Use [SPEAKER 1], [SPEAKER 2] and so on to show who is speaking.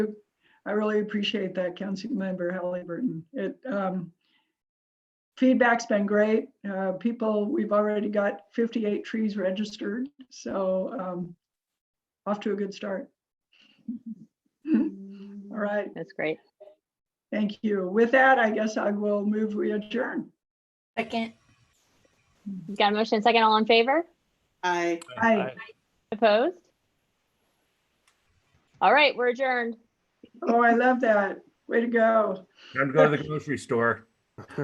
[SPEAKER 1] I really appreciate that, Councilmember Halliburton. It, um, feedback's been great. Uh, people, we've already got 58 trees registered, so, um, off to a good start. All right,
[SPEAKER 2] That's great.
[SPEAKER 1] thank you. With that, I guess I will move we adjourn.
[SPEAKER 3] Second.
[SPEAKER 2] Got a motion and second, all in favor?
[SPEAKER 3] Aye.
[SPEAKER 1] Hi,
[SPEAKER 2] Opposed? All right, we're adjourned.
[SPEAKER 1] oh, I love that. Way to go.
[SPEAKER 4] Time to go to the grocery store.